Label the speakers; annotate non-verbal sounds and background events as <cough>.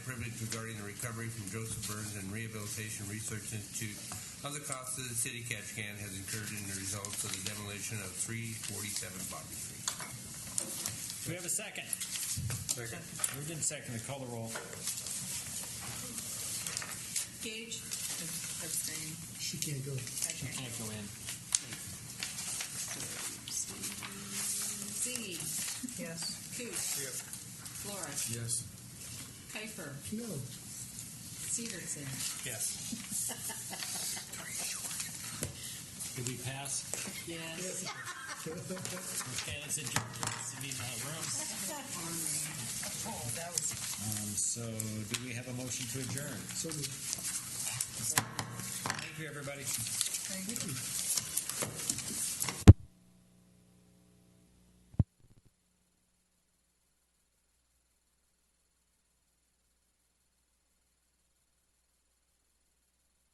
Speaker 1: privilege regarding the recovery from Joseph Burns and Rehabilitation Research Institute of the costs that the city of Ketchikan has incurred in the results of the demolition of 347 Bobby Street.
Speaker 2: Do we have a second? Second. Moved in second. Call the roll.
Speaker 3: Gage? Abstain.
Speaker 4: She can't go.
Speaker 3: Patrick?
Speaker 2: Can't go in.
Speaker 3: Ziggy?
Speaker 4: Yes.
Speaker 3: Cooch?
Speaker 4: Yes.
Speaker 3: Flores?
Speaker 4: Yes.
Speaker 3: Kuiper?
Speaker 4: No.
Speaker 2: <laughs>
Speaker 3: Severson?
Speaker 2: Yes. Did we pass?
Speaker 3: Yes.
Speaker 2: Okay, let's uh, adjourn to the meeting of the rooms.
Speaker 3: Oh, that was.
Speaker 2: Um, so do we have a motion to adjourn?
Speaker 4: So moved.
Speaker 2: Thank you, everybody.
Speaker 4: Thank you.